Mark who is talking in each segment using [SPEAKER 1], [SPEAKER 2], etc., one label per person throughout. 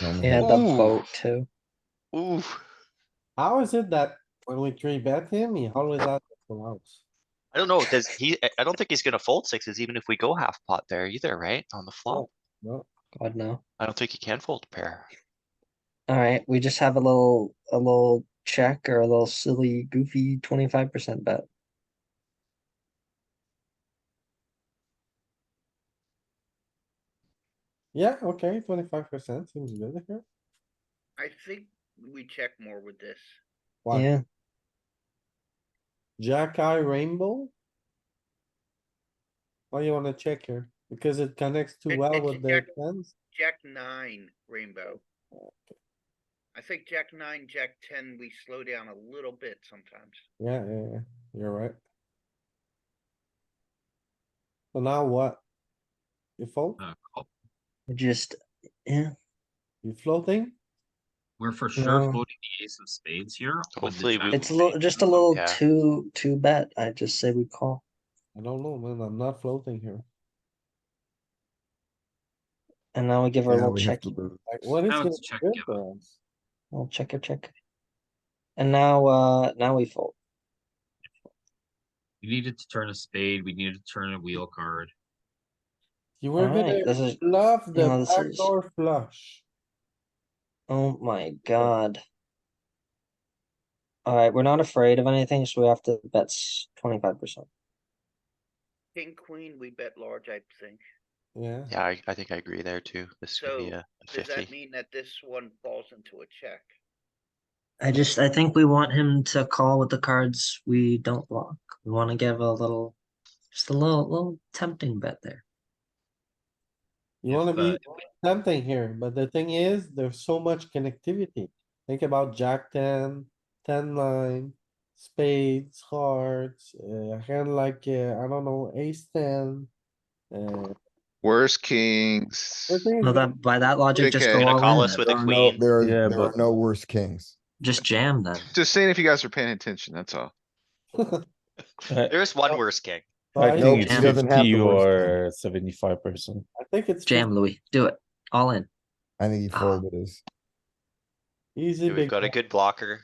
[SPEAKER 1] Normally.
[SPEAKER 2] He had the
[SPEAKER 1] Hmm.
[SPEAKER 3] Ooh.
[SPEAKER 2] boat too.
[SPEAKER 3] Ooh,
[SPEAKER 4] How is it that when we three bet him, he always has the house?
[SPEAKER 3] I don't know, does he, I- I don't think he's gonna fold sixes even if we go half pot there either, right? On the flop.
[SPEAKER 4] No,
[SPEAKER 2] God no.
[SPEAKER 3] I don't think he can fold a pair.
[SPEAKER 2] All right, we just have a little a little check or a little silly goofy twenty five percent bet.
[SPEAKER 4] yeah, okay, twenty-five percent seems good here.
[SPEAKER 5] I think we check more with this.
[SPEAKER 4] Wow.
[SPEAKER 2] Yeah,
[SPEAKER 4] Jack eye rainbow? Why you wanna check here? Because it connects too
[SPEAKER 5] It-
[SPEAKER 4] well
[SPEAKER 5] it's
[SPEAKER 4] with the
[SPEAKER 5] Jack-
[SPEAKER 4] tens?
[SPEAKER 5] Jack nine rainbow. I think Jack nine, Jack ten, we slow down a little bit sometimes.
[SPEAKER 4] Yeah, yeah, yeah, you're right. So now what? You fold?
[SPEAKER 6] Uh, call.
[SPEAKER 2] just yeah.
[SPEAKER 4] You floating?
[SPEAKER 6] We're for sure
[SPEAKER 2] No.
[SPEAKER 6] floating the ace of spades here. with the
[SPEAKER 3] Hopefully we-
[SPEAKER 6] jack
[SPEAKER 2] It's a
[SPEAKER 6] of
[SPEAKER 2] little
[SPEAKER 6] spades.
[SPEAKER 2] just a little
[SPEAKER 3] yeah.
[SPEAKER 2] too too bet. I just say we call.
[SPEAKER 4] I don't know, man, I'm not floating here.
[SPEAKER 2] And now we give her a
[SPEAKER 1] Yeah,
[SPEAKER 2] little
[SPEAKER 1] we have
[SPEAKER 2] check.
[SPEAKER 1] to lose.
[SPEAKER 4] Like, what is
[SPEAKER 6] Now
[SPEAKER 4] gonna
[SPEAKER 6] it's check
[SPEAKER 4] be good
[SPEAKER 6] give up.
[SPEAKER 4] for us?
[SPEAKER 2] Little checker check. And now uh now we fold.
[SPEAKER 6] We needed to turn a spade, we needed to turn a wheel card.
[SPEAKER 4] You were
[SPEAKER 2] Alright, this
[SPEAKER 4] gonna
[SPEAKER 2] is-
[SPEAKER 4] bluff
[SPEAKER 2] no,
[SPEAKER 4] the
[SPEAKER 2] this is-
[SPEAKER 4] backdoor flush.
[SPEAKER 2] Oh my god. Alright, we're not afraid of anything, so we have to bet twenty five percent.
[SPEAKER 5] King, queen, we bet large, I think.
[SPEAKER 4] Yeah,
[SPEAKER 3] Yeah, I, I think I agree there too. This could be
[SPEAKER 5] So,
[SPEAKER 3] a a
[SPEAKER 5] Does that
[SPEAKER 3] fifty.
[SPEAKER 5] mean that this one falls into a check?
[SPEAKER 2] I just I think we want him to call with the cards we don't block. We wanna give a little just a little little tempting bet there.
[SPEAKER 4] you
[SPEAKER 6] If,
[SPEAKER 4] wanna be
[SPEAKER 6] uh,
[SPEAKER 4] something here, but the thing is, there's so much connectivity. Think about jack ten, ten line, spades, hearts, uh, hand like, uh, I don't know, ace ten. Uh,
[SPEAKER 7] Worst kings.
[SPEAKER 4] everything is
[SPEAKER 2] Well
[SPEAKER 4] gonna-
[SPEAKER 2] that by that logic, just
[SPEAKER 7] Okay.
[SPEAKER 2] go
[SPEAKER 7] Gonna
[SPEAKER 2] all
[SPEAKER 3] call
[SPEAKER 2] in.
[SPEAKER 3] us with a
[SPEAKER 7] There are no-
[SPEAKER 3] queen.
[SPEAKER 7] There are,
[SPEAKER 1] Yeah,
[SPEAKER 7] there are
[SPEAKER 1] but-
[SPEAKER 7] no worse kings.
[SPEAKER 2] Just jam then.
[SPEAKER 7] Just seeing if you guys are paying attention, that's all.
[SPEAKER 1] I-
[SPEAKER 3] There is one worse king.
[SPEAKER 4] I
[SPEAKER 1] I
[SPEAKER 4] think
[SPEAKER 1] think it's
[SPEAKER 2] Jam.
[SPEAKER 1] fifty
[SPEAKER 7] Doesn't have the worst
[SPEAKER 1] or seventy-five percent.
[SPEAKER 4] I think it's
[SPEAKER 2] Jam, Louis. Do it. All in.
[SPEAKER 7] I think he
[SPEAKER 2] Ah.
[SPEAKER 7] folded his.
[SPEAKER 4] easy
[SPEAKER 3] We've
[SPEAKER 4] big
[SPEAKER 3] got a
[SPEAKER 4] bet,
[SPEAKER 3] good blocker.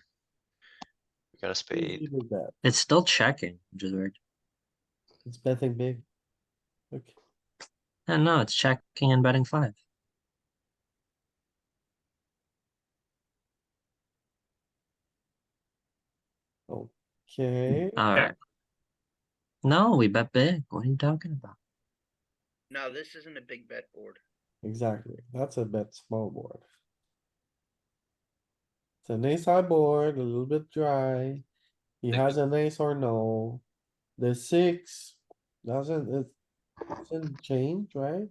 [SPEAKER 3] We got a
[SPEAKER 4] easy
[SPEAKER 3] spade.
[SPEAKER 4] big bet.
[SPEAKER 2] It's still checking, which is weird.
[SPEAKER 4] It's betting big. Look,
[SPEAKER 2] And no, it's checking and betting five.
[SPEAKER 4] okay,
[SPEAKER 2] Alright. No, we bet big. What are you talking about?
[SPEAKER 5] No, this isn't a big bet board.
[SPEAKER 4] exactly. That's a bet small board. It's an ace high board, a little bit dry. He
[SPEAKER 6] Six.
[SPEAKER 4] has an ace or no. The six doesn't, it doesn't change, right?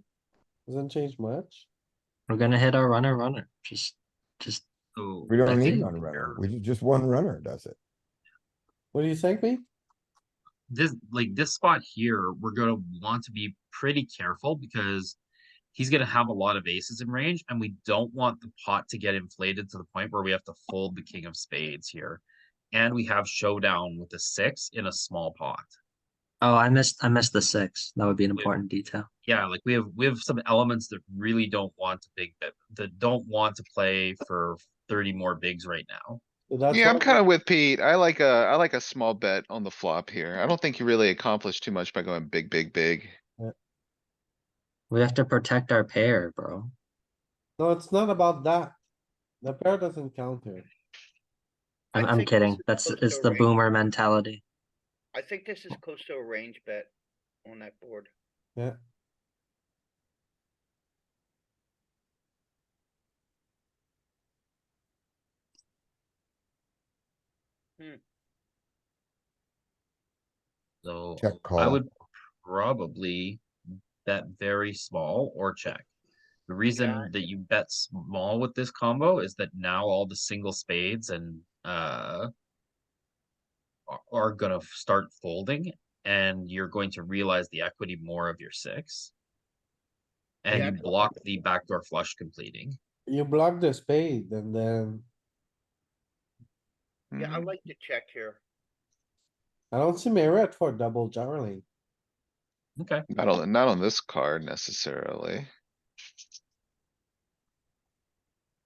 [SPEAKER 4] Doesn't change much.
[SPEAKER 2] We're gonna hit our runner runner. Just just
[SPEAKER 6] So
[SPEAKER 7] We
[SPEAKER 2] I
[SPEAKER 7] don't need
[SPEAKER 2] think
[SPEAKER 7] one
[SPEAKER 6] there-
[SPEAKER 7] runner. We, ju- just one runner does it.
[SPEAKER 4] What do you think, Pete?
[SPEAKER 6] This, like this spot here, we're gonna want to be pretty careful because he's gonna have a lot of aces in range and we don't want the pot to get inflated to the point where we have to fold the king of spades here. And we have showdown with the six in a small pot.
[SPEAKER 2] oh I missed I missed the six. That would be an
[SPEAKER 6] Wait.
[SPEAKER 2] important detail.
[SPEAKER 6] Yeah, like we have we have some elements that really don't want to big bet that don't want to play for thirty more bigs right now.
[SPEAKER 4] So that's
[SPEAKER 7] Yeah, I'm
[SPEAKER 4] what-
[SPEAKER 7] kinda with Pete. I like a, I like a small bet on the flop here. I don't think you really accomplished too much by going big, big, big.
[SPEAKER 2] We have to protect our pair, bro.
[SPEAKER 4] No, it's not about that. The pair doesn't count here.
[SPEAKER 5] I
[SPEAKER 2] I'm, I'm
[SPEAKER 5] think this
[SPEAKER 2] kidding.
[SPEAKER 5] is
[SPEAKER 2] That's
[SPEAKER 5] close to
[SPEAKER 2] it's
[SPEAKER 5] a
[SPEAKER 2] the
[SPEAKER 5] range.
[SPEAKER 2] boomer mentality.
[SPEAKER 5] I think this is close to a range bet on that board.
[SPEAKER 4] Yeah.
[SPEAKER 6] So
[SPEAKER 7] Check
[SPEAKER 6] I
[SPEAKER 7] call.
[SPEAKER 6] would probably bet very small or check. The reason that you bet small with this combo is that now all the single spades and uh are- are gonna f- start folding and you're going to realize the equity more of your six. And
[SPEAKER 5] Yeah,
[SPEAKER 6] you
[SPEAKER 5] I-
[SPEAKER 6] block the backdoor flush completing.
[SPEAKER 4] You block the spade and then,
[SPEAKER 5] Yeah, I
[SPEAKER 7] Mhm.
[SPEAKER 5] like to check here.
[SPEAKER 4] I don't see merit for double jarring.
[SPEAKER 6] Okay.
[SPEAKER 7] Not on, not on this card necessarily.